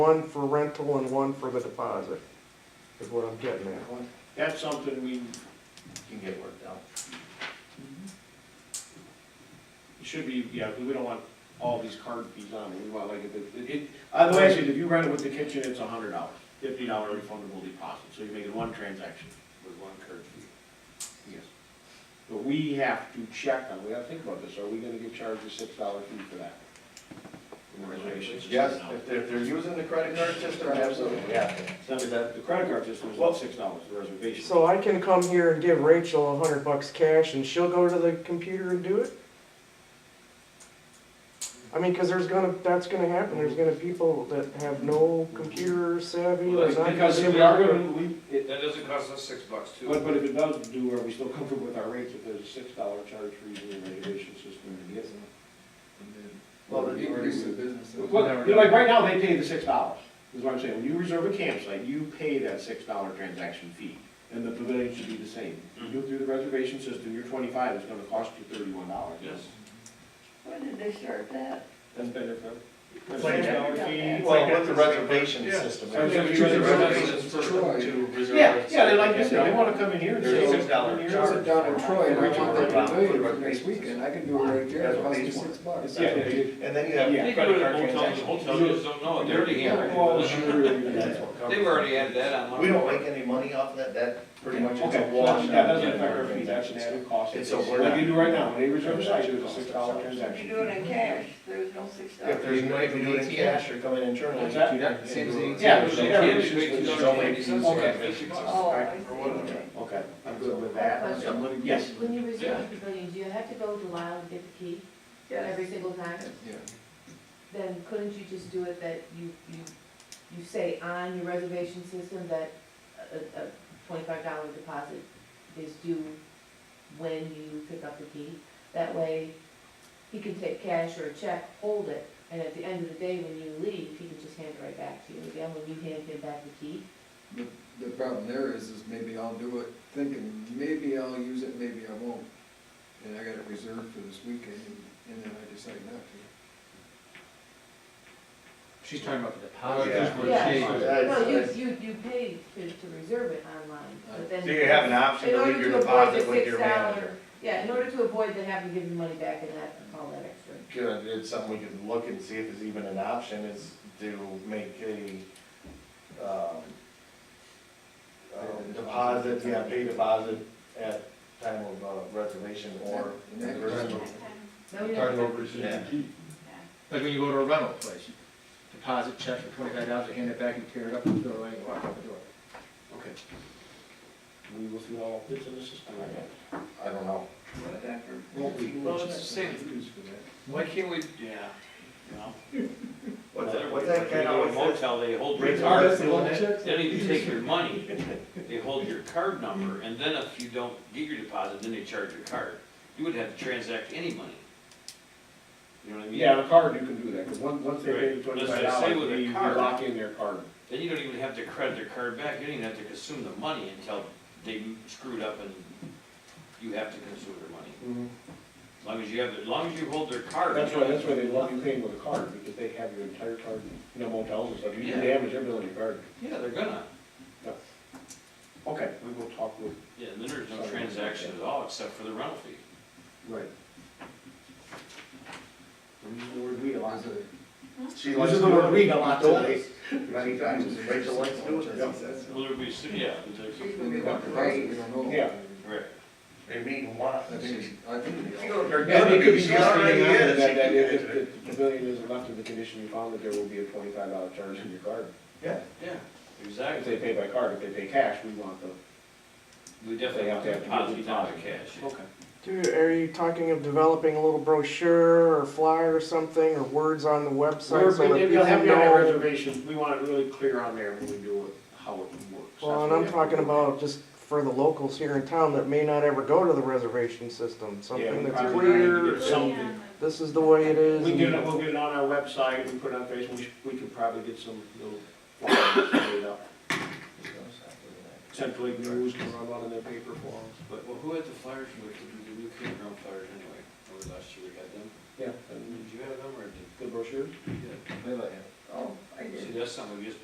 One for rental and one for the deposit, is what I'm getting at. That's something we can get worked out. It should be, yeah, because we don't want all these card fees on it, we want like, if it, it- it, otherwise, if you rent it with the kitchen, it's a hundred dollars, fifty dollar refundable deposit, so you're making one transaction with one card fee. Yes. But we have to check on, we have to think about this, are we gonna get charged a six dollar fee for that? Reservations. Yes, if they're, if they're using the credit card system, absolutely, yeah. So that, the credit card system is about six dollars, the reservation. So I can come here and give Rachel a hundred bucks cash and she'll go to the computer and do it? I mean, cause there's gonna, that's gonna happen, there's gonna be people that have no computer savvy Well, or that's not. Because if we are gonna, we, it, That doesn't cost us six bucks too. But, but if it does do, are we still comfortable with our rates if there's a six dollar charge for using the reservation system to get them? Well, the increase in business. Well, you know, like, right now, they pay the six dollars, is what I'm saying, when you reserve a campsite, you pay that six dollar transaction fee, and the pavilion should be the same. You do it through the reservation system, your twenty-five is gonna cost you thirty-one dollars. Yes. When did they start that? That's better for. Like- $6 fee. Well, with the reservation Yeah. system. So if you it's- use the reservations for- Troy. to reserve Yeah, it. yeah, they like you said, they wanna come in here and There's say. a $6 "Come in here." charge. Sit down in Troy and I want that Around pavilion for for next weekend, I can do it right there, That's it what costs me these six bucks. Yeah, yeah, yeah. And then you have Yeah. They go to credit the hotel, card the transactions. hotel just don't oh, know, they already have it. Well, sure. They've already added that on. We don't make any money off of that, that pretty much is a Okay, wash. yeah, that's an effective fee, that's an added cost. It's a Like you do right now, when they reserve a site, it's a six dollar If transaction. you do it in cash, there's no six If dollars. there's money to do it in cash or coming internally. What's that? you don't- Same as the- Yeah, They so can't yeah, just wait till it's they're only- ready. it's Okay, only- six bucks. Oh, I see, Or whatever. okay. Okay, I'm good with that. Yes. When you reserve the pavilion, do you have to go to Lyle and get the key Yes. every single time? Yeah. Then couldn't you just do it that you, you, you say on your reservation system that a, a twenty-five dollar deposit is due when you pick up the key? That way, he can take cash or a check, hold it, and at the end of the day, when you leave, he can just hand it right back to you. Again, when you hand him back the key, The, the problem there is, is maybe I'll do it thinking, maybe I'll use it, maybe I won't. And I got it reserved for this weekend, and- and then I decide not to. She's talking about the Oh, deposit. yeah. That's what Yeah. she- That's- No, you, that's- you, you pay to, to reserve it online, but then. So you have an option In to order leave your to avoid the deposit with your six manager. dollar, yeah, in order to avoid the having to give you money back and that, all that extra. Good, it's something we could look and see if there's even an option is to make a, um, uh, deposit, yeah, pay deposit at time of uh, reservation or. And that- No, you don't have to- Yeah. Like when you go to a rental place, you deposit check for twenty-five dollars, you hand it back, you tear it up, you throw it away, and you walk out the door. Okay. We will see all this in the system. I don't know. Well, it's the same. Why can't we, yeah. What's that, what's that kind of, what's that? Motel, they hold your Rates card, are doing it? they don't even take your money, they hold your card number, and then if you don't get your deposit, then they charge your card. You would have to transact any money. You know what I mean? Yeah, on a card, you can do that, because once, once they pay the Right. Let's twenty-five just say dollars, with a we we card. lock in their card. Then you don't even have to credit their card back, you don't even have to consume the money until they screwed up and you have to consume their money. Mm-hmm. As long as you have, as long as you hold their card. That's why, that's why they love you paying with a card, because they have your entire card, you know, motels and stuff, you can Yeah. damage everything on your card. Yeah, they're gonna, Okay, we will talk with. yeah, and then there's no transaction at all except for the rental fee. Right. Word we a lot. There's a- She This likes is to the do word it. we a lot today. Many times, Rachel likes to do it, as he says. Well, there'd be, yeah, there's a- We got the deposit, we don't know. Yeah. right. They mean once. I think, I think. we all- Yeah, it could be She just already the amount is. that, that if, if the pavilion is left in the condition you found it, there will be a twenty-five dollar charge in your card. Yeah, If they exactly. pay by card, if they pay cash, we want the. We definitely have to have deposit down the cash. Okay. Dude, are you talking of developing a little brochure or flyer or something, or words on the website? so that We'll have people you on our know? reservation, we want it really clear on there when we do it, how it works. Well, and I'm talking about just for the locals here in town that may not ever go to the reservation system, something that's clear, Something. this is the way it is. We get it, we'll get it on our website, we put it on Facebook, we, should- we could probably get some little flyers made up. Central Lake News can run one in their paper forms, but, But, well, who had the flyers, we were, the new campground flyers anyway, or last year we had them? yeah, Did and you have them, or did? the brochures. They let you. Oh, I did. See, that's something we just